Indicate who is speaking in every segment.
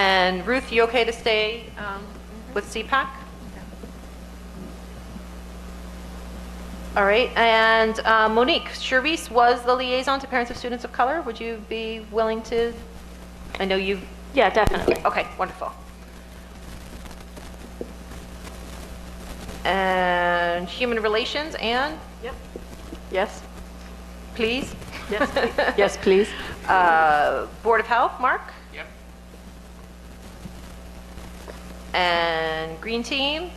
Speaker 1: And Ruth, you okay to stay um, with CPAC? All right, and uh, Monique, Charisse was the liaison to parents of students of color. Would you be willing to, I know you,
Speaker 2: Yeah, definitely.
Speaker 1: okay, wonderful. And human relations, Anne,
Speaker 2: Yes,
Speaker 1: please.
Speaker 2: yes, pl- yes, please.
Speaker 1: Uh, Board of Health, Mark?
Speaker 3: Yep.
Speaker 1: And Green Team,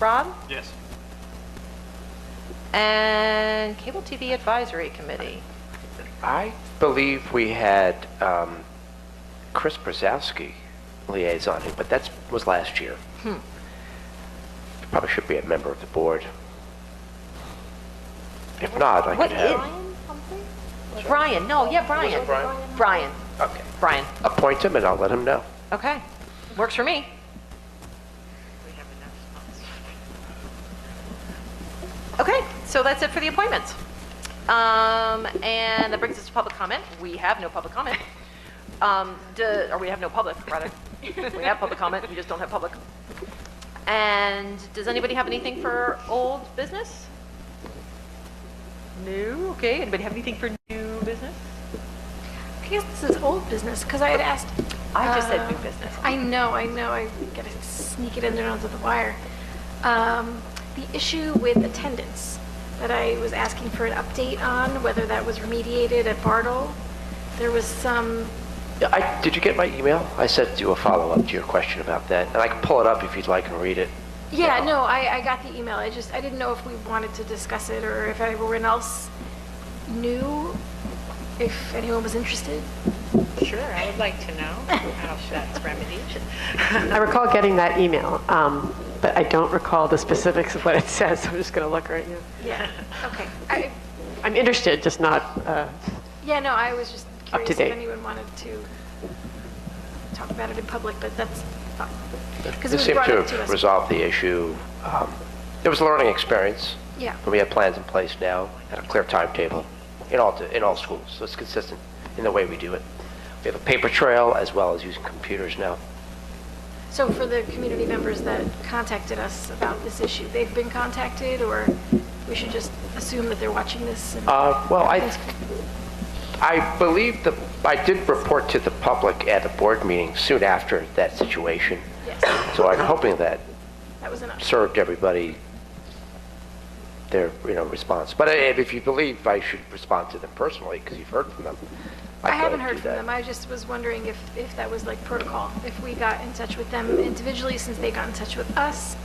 Speaker 1: Rob?
Speaker 3: Yes.
Speaker 1: And Cable TV Advisory Committee.
Speaker 4: I believe we had um, Chris Brzezowski liaison, but that was last year. Probably should be a member of the board. If not, I
Speaker 1: What
Speaker 4: could
Speaker 1: is?
Speaker 4: have,
Speaker 1: Brian, no, yeah, Brian.
Speaker 4: Brian?
Speaker 1: Brian,
Speaker 4: okay,
Speaker 1: Brian.
Speaker 4: appoint him and I'll let him know.
Speaker 1: Okay, works for me. Okay, so that's it for the appointments. Um, and that brings us to public comment. We have no public comment. Um, d- or we have no public, rather. We have public comment, we just don't have public. And does anybody have anything for old business? No, okay, anybody have anything for new business?
Speaker 5: I guess this is old business because I had asked.
Speaker 1: I just said new
Speaker 5: uh,
Speaker 1: business.
Speaker 5: I know, I know. I gotta sneak it in there under the wire. Um, the issue with attendance that I was asking for an update on, whether that was remediated at Bartle. There was some.
Speaker 4: Yeah, I, did you get my email? I sent you a follow-up to your question about that, and I can pull it up if you'd like and read it.
Speaker 5: Yeah, no, I, I got the email. I just I didn't know if we wanted to discuss it or if everyone else knew if anyone was interested.
Speaker 6: Sure, I would like to know how that's remedied.
Speaker 7: I recall getting that email, um, but I don't recall the specifics of what it says, so I'm just going to look right now.
Speaker 5: Yeah. Okay. I,
Speaker 7: I'm interested, just not, uh,
Speaker 5: Yeah, no, I was just
Speaker 7: Up to
Speaker 5: curious if
Speaker 7: date.
Speaker 5: anyone wanted to talk about it in public, but that's fine. Because it
Speaker 4: This
Speaker 5: was
Speaker 4: seemed
Speaker 5: brought
Speaker 4: to
Speaker 5: up to
Speaker 4: have
Speaker 5: us.
Speaker 4: resolved the issue. Um, It was a learning experience.
Speaker 5: Yeah.
Speaker 4: But we have plans in place now, and a clear timetable in all, in all schools, so it's consistent in the way we do it. We have a paper trail as well as using computers now.
Speaker 5: So for the community members that contacted us about this issue, they've been contacted, or we should just assume that they're watching this? and-
Speaker 4: Uh, Well, I, I believe the, I did report to the public at a board meeting soon after that situation,
Speaker 5: Yes,
Speaker 4: so I'm hoping that
Speaker 5: that was enough.
Speaker 4: served everybody their, you know, response. But I- if you believe I should respond to them personally, because you've heard from them. I'd
Speaker 5: I
Speaker 4: go
Speaker 5: haven't
Speaker 4: do
Speaker 5: heard from
Speaker 4: that.
Speaker 5: them. I just was wondering if, if that was like protocol, if we got in touch with them individually since they got in touch with us,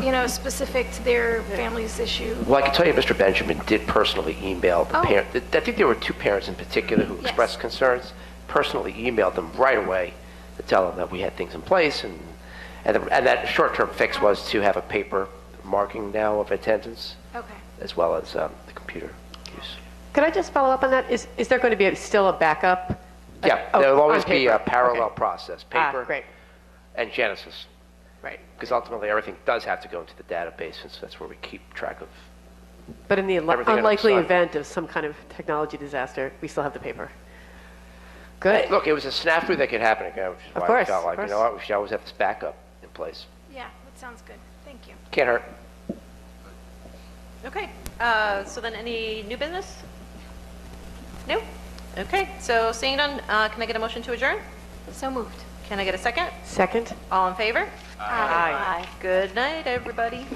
Speaker 5: you know, specific to their family's issue.
Speaker 4: Well, I can tell you, Mr. Benjamin did personally email the
Speaker 5: Oh.
Speaker 4: parent, I think there were two parents in particular who
Speaker 5: Yes.
Speaker 4: expressed concerns, personally emailed them right away to tell them that we had things in place, and, and the- and that short-term fix
Speaker 5: Oh.
Speaker 4: was to have a paper marking now of attendance,
Speaker 5: Okay.
Speaker 4: as well as um, the computer use.
Speaker 7: could I just follow up on that? Is, is there going to be a- still a backup?
Speaker 5: Uh,
Speaker 7: Like,
Speaker 4: Yeah,
Speaker 7: oh,
Speaker 4: there'll
Speaker 7: on
Speaker 4: always be a
Speaker 7: paper.
Speaker 4: parallel
Speaker 7: Okay.
Speaker 4: process,
Speaker 7: Ah,
Speaker 4: paper.
Speaker 7: great,
Speaker 4: And Genesis,
Speaker 7: right.
Speaker 4: because ultimately, everything does have to go into the database, since that's where we keep track of.
Speaker 7: But in the unli-
Speaker 4: Everything on its
Speaker 7: unlikely
Speaker 4: side.
Speaker 7: event of some kind of technology disaster, we still have the paper. Good.
Speaker 4: Look, it was a snafu that could happen again, which is
Speaker 7: Of
Speaker 4: why we
Speaker 7: course,
Speaker 4: felt
Speaker 7: of
Speaker 4: like, you know
Speaker 7: course.
Speaker 4: what, we should always have this backup in place.
Speaker 5: Yeah, that sounds good. Thank you.
Speaker 4: Can't hurt.
Speaker 1: Okay, uh, so then any new business? No? Okay, so seeing none, uh, can I get a motion to adjourn?
Speaker 5: So moved.
Speaker 1: Can I get a second?
Speaker 7: Second?
Speaker 1: All in favor?
Speaker 7: Aye.
Speaker 1: Good night, everybody.